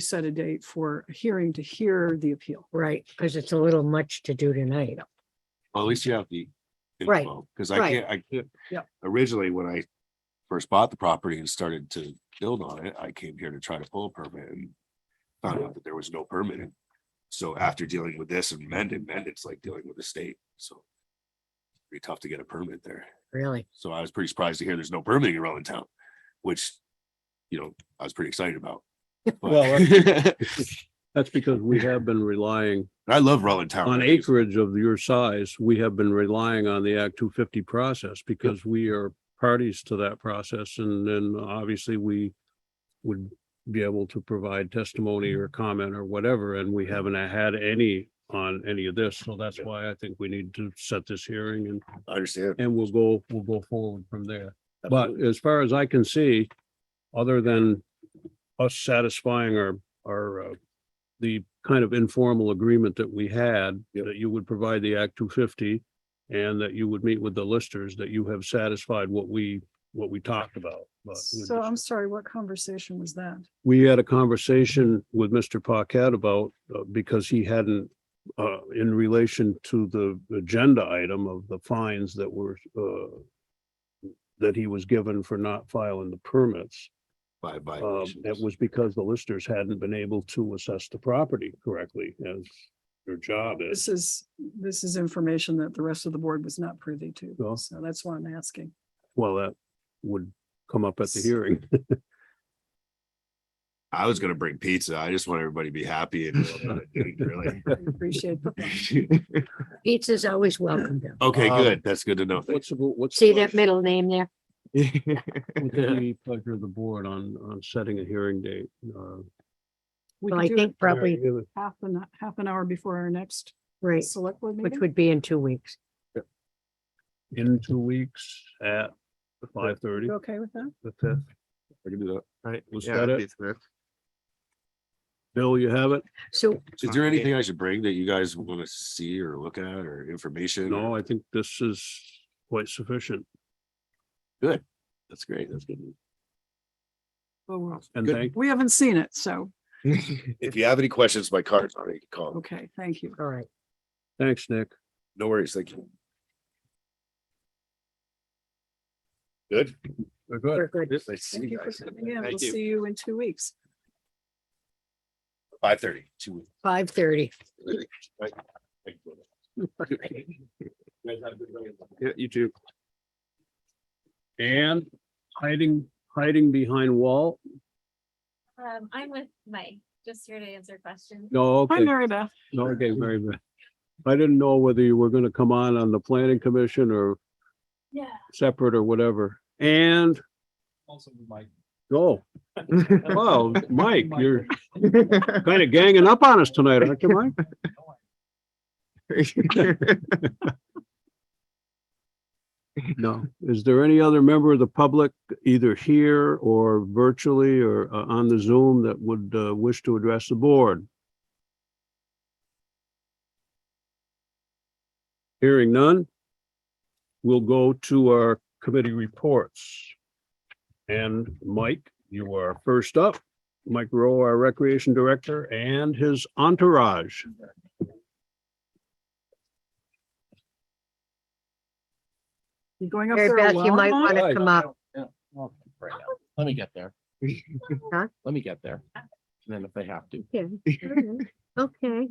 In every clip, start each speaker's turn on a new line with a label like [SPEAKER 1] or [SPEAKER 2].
[SPEAKER 1] set a date for a hearing to hear the appeal.
[SPEAKER 2] Right, because it's a little much to do tonight.
[SPEAKER 3] Well, at least you have the.
[SPEAKER 2] Right,
[SPEAKER 3] Because I
[SPEAKER 2] right.
[SPEAKER 3] can't, I can't.
[SPEAKER 1] Yep.
[SPEAKER 3] Originally, when I first bought the property and started to build on it, I came here to try to pull a permit and. Found out that there was no permit. So after dealing with this and mending, mend, it's like dealing with the state, so. Pretty tough to get a permit there.
[SPEAKER 2] Really,
[SPEAKER 3] So I was pretty surprised to hear there's no permitting in Rutland Town, which, you know, I was pretty excited about. But-
[SPEAKER 4] Well,
[SPEAKER 3] And
[SPEAKER 4] That's because we have been relying
[SPEAKER 3] I love Rutland Town.
[SPEAKER 4] on acreage of your size. We have been relying on the Act two fifty process because we are parties to that process and then obviously we would be able to provide testimony or comment or whatever, and we haven't had any on any of this. So that's why I think we need to set this hearing and
[SPEAKER 3] I understand.
[SPEAKER 4] and we'll go, we'll go forward from there. But as far as I can see, other than us satisfying our, our, uh, the kind of informal agreement that we had,
[SPEAKER 3] Yep.
[SPEAKER 4] that you would provide the Act two fifty and that you would meet with the listers, that you have satisfied what we, what we talked about. But we
[SPEAKER 1] So
[SPEAKER 4] just-
[SPEAKER 1] I'm sorry, what conversation was that?
[SPEAKER 4] we had a conversation with Mr. Paquette about, uh, because he hadn't, uh, in relation to the agenda item of the fines that were, uh, that he was given for not filing the permits.
[SPEAKER 3] By, by.
[SPEAKER 4] Um, it was because the listers hadn't been able to assess the property correctly as their job is.
[SPEAKER 1] This is, this is information that the rest of the board was not privy to.
[SPEAKER 4] Well-
[SPEAKER 1] So that's why I'm asking.
[SPEAKER 4] Well, that would come up at the hearing.
[SPEAKER 3] I was gonna bring pizza. I just want everybody to be happy and. really.
[SPEAKER 1] I appreciate that.
[SPEAKER 2] pizza's always welcome though.
[SPEAKER 3] Okay,
[SPEAKER 4] Um,
[SPEAKER 3] good. That's good to know. Thank
[SPEAKER 4] What's, the bo- what's? the
[SPEAKER 2] See that
[SPEAKER 4] pleasure-
[SPEAKER 2] middle name there?
[SPEAKER 4] what's the pleasure of the board on, on setting a hearing date? Uh,
[SPEAKER 1] We
[SPEAKER 2] Well, I
[SPEAKER 1] could do it
[SPEAKER 2] think probably,
[SPEAKER 4] give it-
[SPEAKER 1] half an, half an hour before our next
[SPEAKER 2] right,
[SPEAKER 1] select board
[SPEAKER 2] which
[SPEAKER 1] meeting.
[SPEAKER 2] would be in two weeks.
[SPEAKER 4] in two weeks at five thirty,
[SPEAKER 1] You okay with that?
[SPEAKER 4] the fifth.
[SPEAKER 3] I can do
[SPEAKER 4] Right. Was
[SPEAKER 5] Yeah,
[SPEAKER 4] that
[SPEAKER 5] that'd
[SPEAKER 4] it?
[SPEAKER 5] be correct.
[SPEAKER 4] Bill, you have it?
[SPEAKER 2] So,
[SPEAKER 3] that. Is there anything I should bring that you guys wanna see or look at or information?
[SPEAKER 4] No,
[SPEAKER 3] or-
[SPEAKER 4] I think this is quite sufficient.
[SPEAKER 3] That's great. That's good.
[SPEAKER 1] Oh, well,
[SPEAKER 4] And
[SPEAKER 3] Good.
[SPEAKER 4] thank,
[SPEAKER 1] We haven't seen it, so,
[SPEAKER 3] If you have any questions, my card's on it. Call. them.
[SPEAKER 1] okay, thank you.
[SPEAKER 2] all right,
[SPEAKER 4] thanks, Nick.
[SPEAKER 3] No worries. Thank you. Good.
[SPEAKER 4] We're good.
[SPEAKER 2] we're good.
[SPEAKER 3] Nice to see
[SPEAKER 1] Thank
[SPEAKER 3] you
[SPEAKER 1] you for
[SPEAKER 3] guys.
[SPEAKER 1] coming in. We'll
[SPEAKER 3] Thank you.
[SPEAKER 1] see you in two weeks.
[SPEAKER 3] Five thirty, two weeks.
[SPEAKER 2] Five thirty.
[SPEAKER 3] Right. Thank you. You guys have a good night.
[SPEAKER 5] Yeah, you too.
[SPEAKER 4] And hiding, hiding behind wall?
[SPEAKER 6] Um, I'm with Mike, just here to answer questions.
[SPEAKER 4] No,
[SPEAKER 1] Hi,
[SPEAKER 4] okay,
[SPEAKER 1] Mary Beth.
[SPEAKER 4] no, okay, very good. I didn't know whether you were gonna come on on the planning commission or
[SPEAKER 6] Yeah.
[SPEAKER 4] separate or whatever. And,
[SPEAKER 7] Also with Mike.
[SPEAKER 4] oh, wow, Mike, you're kind of ganging up on us tonight, aren't you, Mike? No. Is there any other member of the public, either here or virtually or uh, on the Zoom, that would uh, wish to address the board? Hearing none, we'll go to our committee reports. And Mike, you are first up. Mike Rowe, our Recreation Director, and his entourage.
[SPEAKER 1] You going up
[SPEAKER 2] Mary
[SPEAKER 1] there
[SPEAKER 2] Beth, you might
[SPEAKER 1] alone?
[SPEAKER 2] want to
[SPEAKER 7] Right.
[SPEAKER 2] come up.
[SPEAKER 7] Yeah, well, right now. Let me get there.
[SPEAKER 2] Huh?
[SPEAKER 7] Let me get there. And then if they have to.
[SPEAKER 2] Okay.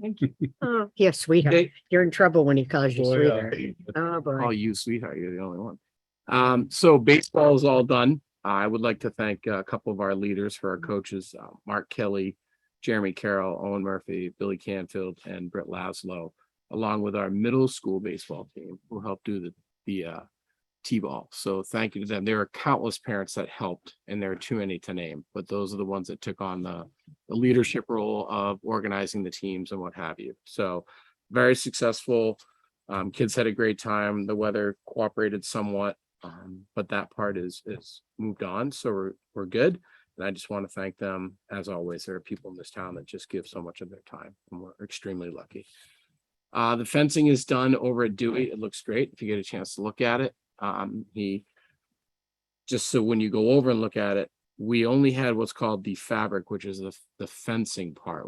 [SPEAKER 2] Oh, yeah, sweetheart. You're in trouble when he calls you sweetheart.
[SPEAKER 7] uh,
[SPEAKER 2] Oh,
[SPEAKER 5] Call
[SPEAKER 2] boy.
[SPEAKER 5] you sweetheart, you're the only one. Um, so baseball is all done. I would like to thank uh, a couple of our leaders for our coaches, uh, Mark Kelly, Jeremy Carroll, Owen Murphy, Billy Canfield, and Britt Laszlo, along with our middle school baseball team who helped do the, the, uh, T-ball. So thank you to them. There are countless parents that helped and there are too many to name, but those are the ones that took on the, the leadership role of organizing the teams and what have you. So very successful. Um, kids had a great time. The weather cooperated somewhat, um, but that part is is moved on, so we're we're good. And I just want to thank them. As always, there are people in this town that just give so much of their time, and we're extremely lucky. Uh, the fencing is done over at Dewey. It looks great if you get a chance to look at it. Um, he just so when you go over and look at it, we only had what's called the fabric, which is the, the fencing part,